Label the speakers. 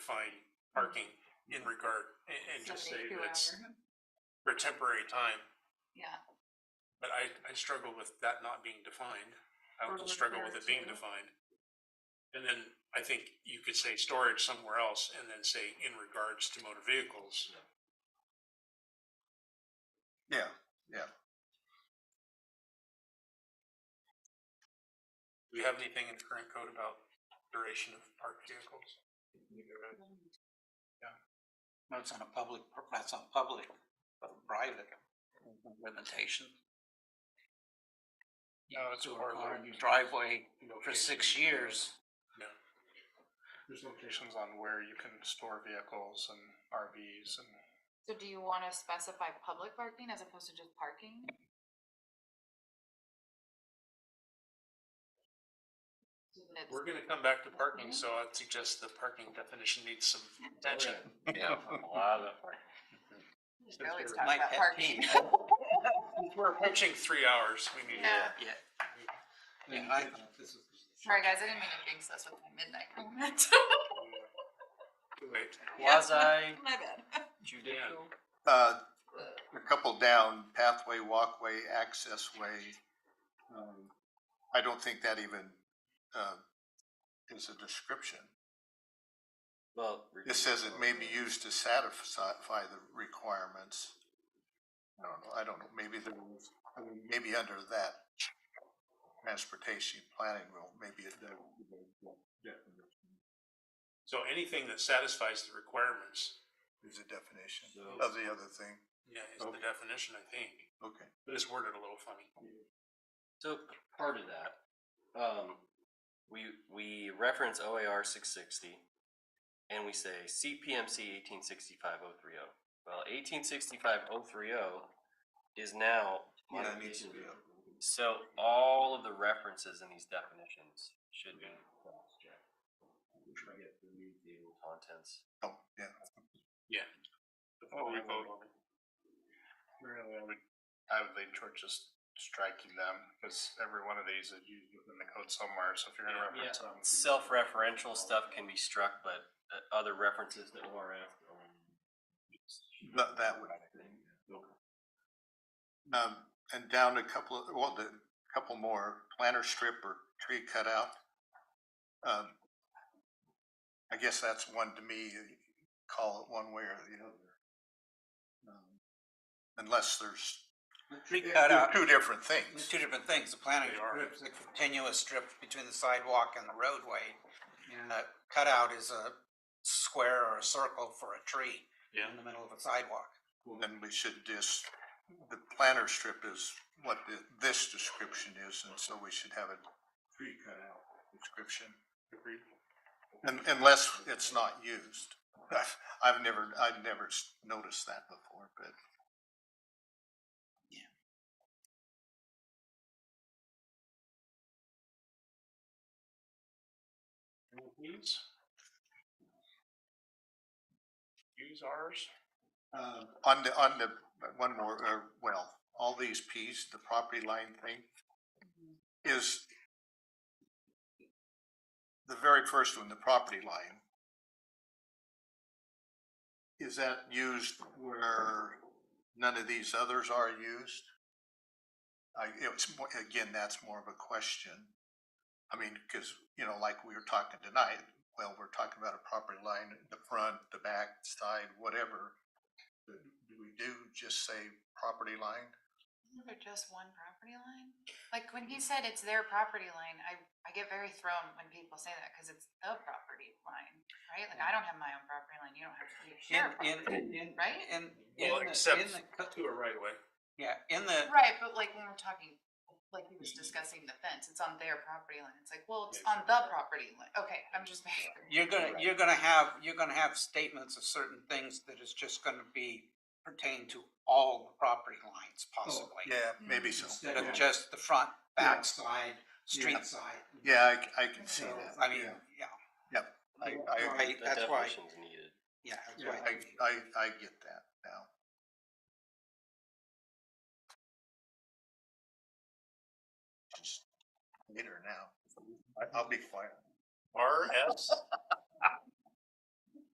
Speaker 1: define parking in regard, and, and just say
Speaker 2: Somebody who
Speaker 1: that's
Speaker 2: ever-
Speaker 1: for temporary time.
Speaker 2: Yeah,
Speaker 1: But I, I struggle with that not being defined. I
Speaker 2: Or
Speaker 1: would struggle with
Speaker 2: repair
Speaker 1: it being
Speaker 2: too.
Speaker 1: defined. And then I think you could say storage somewhere else and then say in regards to motor vehicles.
Speaker 3: Yeah, yeah.
Speaker 1: Do we have anything in the current code about duration of parked vehicles?
Speaker 4: That's on a public, that's on public, but private limitation.
Speaker 1: No, it's a
Speaker 4: Or
Speaker 1: hard line.
Speaker 4: driveway for six years.
Speaker 5: There's locations on where you can store vehicles and RVs and
Speaker 2: so do you wanna specify public parking as opposed to just parking? So that it's-
Speaker 1: We're gonna come back to parking, so I'd suggest the parking definition needs some attention.
Speaker 3: Yeah.
Speaker 2: we should always
Speaker 4: It's
Speaker 2: talk
Speaker 4: my
Speaker 2: about
Speaker 4: pet
Speaker 2: parking.
Speaker 4: peeve.
Speaker 1: We're approaching three hours, we need to.
Speaker 2: Yeah.
Speaker 4: Yeah. Yeah, I, this is.
Speaker 2: Sorry, guys, I didn't mean to jinx us with my midnight comment.
Speaker 1: Wait,
Speaker 4: Quasi
Speaker 2: My bad.
Speaker 4: judicial.
Speaker 3: Uh, a couple down, pathway, walkway, access way. Um, I don't think that even, uh, is a description.
Speaker 6: Well.
Speaker 3: It says it may be used to satisfy the requirements. I don't know, I don't know, maybe there was, I mean, maybe under that transportation planning rule, maybe it.
Speaker 1: So anything that satisfies the requirements,
Speaker 3: Is a definition
Speaker 6: So-
Speaker 3: of the other thing,
Speaker 1: yeah, is the
Speaker 3: Okay.
Speaker 1: definition, I think.
Speaker 3: okay.
Speaker 1: But it's worded a little funny.
Speaker 6: So part of that, um, we, we reference OAR six sixty and we say CPMC eighteen sixty-five oh three oh. Well, eighteen sixty-five oh three oh is now
Speaker 3: Yeah, it needs to
Speaker 6: modification.
Speaker 3: be up.
Speaker 6: So all of the references in these definitions should be. cross-checked. Contents.
Speaker 3: Oh, yeah,
Speaker 1: Before we vote on it.
Speaker 5: Oh, really, I would, I would lean toward just striking them because every one of these is used within the code somewhere. So if you're gonna
Speaker 6: Yeah,
Speaker 5: reference them.
Speaker 6: Self-referential stuff can be struck, but uh, other references to ORF.
Speaker 3: that, that would. Um, and down a couple of, well, the, couple more, planter strip or tree cutout. Um, I guess that's one to me, you call it one way or the other. Um, Unless there's
Speaker 4: Tree
Speaker 3: they're
Speaker 4: cutout,
Speaker 3: two different
Speaker 4: It's
Speaker 3: things.
Speaker 4: two different things. The planting
Speaker 1: They are.
Speaker 4: strip is a continuous strip between the sidewalk and the roadway. And a cutout is a square or a circle for a tree
Speaker 1: Yeah.
Speaker 4: in the middle of a sidewalk.
Speaker 3: Then we should just, the planter strip is what the, this description is, and so we should have a tree cutout description.
Speaker 1: Agreed.
Speaker 3: Un- Unless it's not used. I've, I've never, I've never s- noticed that before, but.
Speaker 1: Please. Use ours.
Speaker 3: Uh, On the, on the, one more, uh, well, all these Ps, the property line thing, is the very first one, the property line. Is that used where none of these others are used? I, it's more, again, that's more of a question. I mean, cause, you know, like we were talking tonight, well, we're talking about a property line, the front, the back, side, whatever. Do we do just say property line?
Speaker 2: Isn't there just one property line? Like when he said it's their property line, I, I get very thrown when people say that because it's the property line, right? Like I don't have my own property line, you don't have, you
Speaker 4: In,
Speaker 2: share a property.
Speaker 4: in, in.
Speaker 2: Right?
Speaker 4: In, in
Speaker 1: Well,
Speaker 4: the-
Speaker 1: except
Speaker 4: in the co-
Speaker 1: To a right away.
Speaker 4: Yeah, in the,
Speaker 2: Right, but like when we're talking, like he was discussing the fence, it's on their property line. It's like, well, it's Mm-hmm. on the property line. Okay, I'm just making.
Speaker 4: you're gonna, you're gonna have, you're gonna have statements of certain things that is just gonna be pertain to all the property lines possibly.
Speaker 3: Oh, Yeah, maybe so.
Speaker 4: Instead of just the front, back side,
Speaker 3: Yeah.
Speaker 4: street side.
Speaker 3: Yeah, I, c- I can see
Speaker 4: So,
Speaker 3: that.
Speaker 4: I mean,
Speaker 3: yeah.
Speaker 4: yeah.
Speaker 3: Yep. I- I-
Speaker 4: Right,
Speaker 6: The
Speaker 4: That's why,
Speaker 6: definition's needed.
Speaker 4: yeah, that's
Speaker 3: Yeah,
Speaker 4: why.
Speaker 3: I, I, I get that now. Just Later now. I- I'll be quiet.
Speaker 1: RS